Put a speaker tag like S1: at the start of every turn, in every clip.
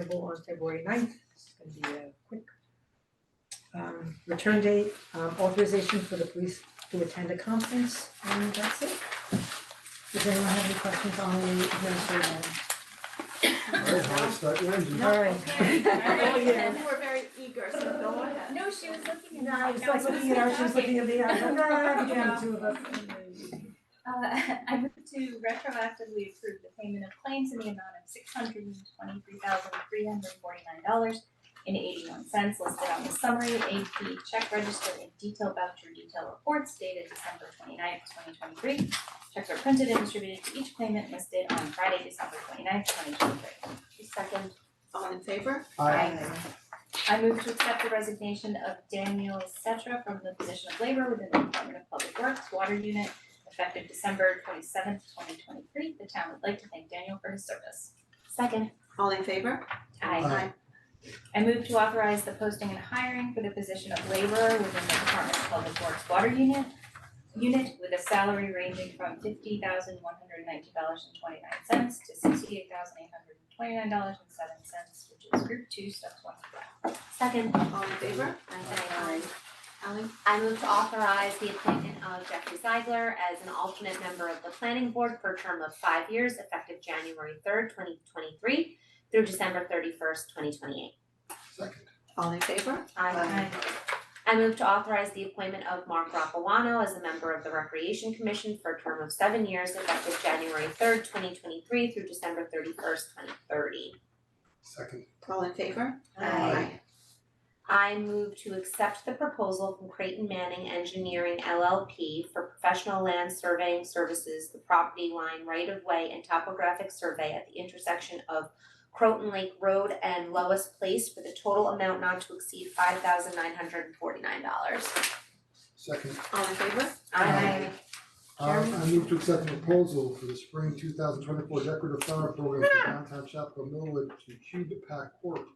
S1: available on February 9th. It's gonna be a quick um return date, um authorization for the police to attend a conference, and that's it. Does anyone have any questions on the administrative?
S2: Alright, I'll start your engine.
S1: All right.
S3: Okay, all right.
S1: Yeah.
S3: You were very eager, so go ahead.
S4: No, she was looking at me.
S1: No, I was
S4: No,
S1: like looking at her, she was looking at me, I was like, ah, we can have two of us.
S4: Uh, I move to retroactively approve the payment of claims in the amount of six hundred and twenty-three thousand, three hundred and forty-nine dollars and eighty-one cents listed on the summary AP check register and detail voucher detail reports dated December 29th, twenty-three. Checks are printed and distributed to each claimant listed on Friday, December 29th, twenty twenty-three.
S3: Second. All in favor?
S2: Aye.
S4: I move to accept the resignation of Daniel Setra from the position of labor within the Department of Public Works Water Unit effective December twenty seventh, twenty twenty three. The town would like to thank Daniel for his service. Second.
S3: All in favor?
S4: Aye. I move to authorize the posting and hiring for the position of laborer within the Department of Public Works Water Unit unit with a salary ranging from fifty thousand one hundred ninety dollars and twenty nine cents to sixty eight thousand eight hundred twenty nine dollars and seven cents, which is group two, step one. Second.
S3: All in favor?
S5: Aye.
S3: Ally?
S5: Um, I move to authorize the appointment of Jeffrey Zeigler as an alternate member of the planning board for a term of five years effective January third, twenty twenty-three through December thirty-first, twenty twenty-eight.
S2: Second,
S3: All in favor?
S5: I I move to authorize the appointment of Mark Rapawano as a member of the Recreation Commission for a term of seven years effective January third, twenty twenty-three through December thirty-first, twenty thirty.
S2: second,
S3: All in favor?
S2: Aye.
S5: I move to accept the proposal from Creighton Manning Engineering LLP for professional land surveying services, the property line right of way and topographic survey at the intersection of Croton Lake Road and Lois Place for the total amount not to exceed five thousand nine hundred and forty-nine dollars.
S2: second.
S3: All in favor?
S2: Aye. Um, I move to accept the proposal for the spring two thousand twenty-four decorative flower program for downtown Chapel Millwood to Cube Pack Corp.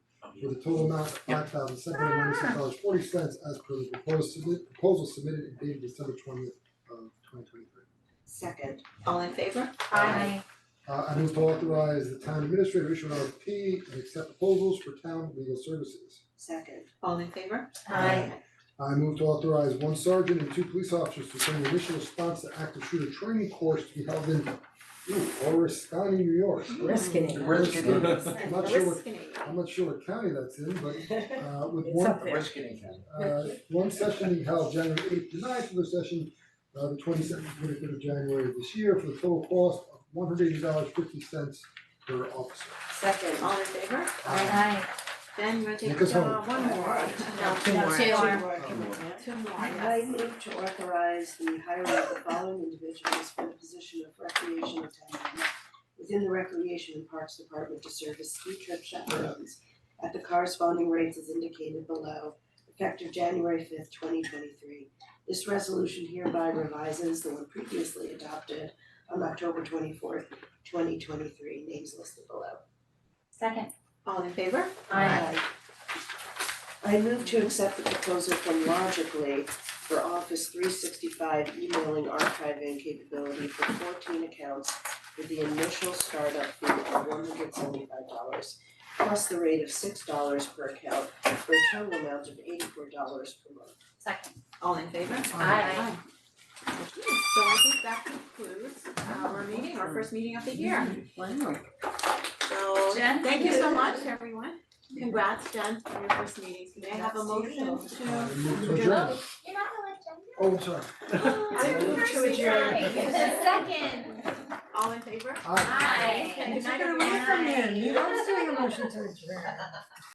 S2: For the total amount of five thousand seven hundred ninety-six dollars forty cents as per the proposed submit, proposal submitted and dated December twentieth of twenty twenty-three.
S3: Second. All in favor?
S4: Aye.
S2: Uh, I move to authorize the town administrator to issue an RFP and accept proposals for town legal services.
S3: Second. All in favor?
S2: Aye. I move to authorize one sergeant and two police officers to attend the initial response to active shooter training course to be held in ooh, Oriskany, New York.
S1: Risking it.
S2: Oriskany. I'm not sure what,
S5: Risking it.
S2: I'm not sure what county that's in, but uh with
S1: It's
S2: one
S1: up there.
S2: uh one session being held January eighth to ninth, another session uh the twenty second, twenty third of January of this year for the total cost of one hundred eighty dollars fifty cents per officer.
S3: Second. All in favor?
S4: Aye.
S3: Then you're taking.
S2: Make us
S3: Uh,
S2: whole.
S3: One more.
S5: No,
S1: Two more.
S5: two are-
S3: Two more,
S6: I move to authorize the hiring of the following individuals for the position of recreation attendant within the Recreation and Parks Department to serve as ski trip chaperones at the corresponding rates as indicated below, effective January fifth, twenty twenty-three. This resolution hereby revises the one previously adopted on October twenty-fourth, twenty twenty-three, names listed below.
S4: Second.
S3: All in favor?
S6: I move to accept the proposal from Logically for Office three sixty-five emailing archiving capability for fourteen accounts with the initial startup fee of one hundred seventy-five dollars plus the rate of six dollars per account for a total amount of eighty-four dollars per month.
S4: Second.
S3: All in favor?
S5: Aye.
S3: Okay, So I think that concludes our meeting, our first meeting of the year. So
S4: Jen?
S3: thank you so much, everyone. Congrats, Jen, on your first meeting. May I have a motion
S2: Uh,
S3: to?
S2: move to adjourn.
S4: You're not gonna let Jen
S2: Oh, sorry.
S6: I move to adjourn.
S4: Second.
S3: All in favor?
S2: Aye.
S4: Aye.
S1: If you're gonna wait for me, you are doing a motion to adjourn.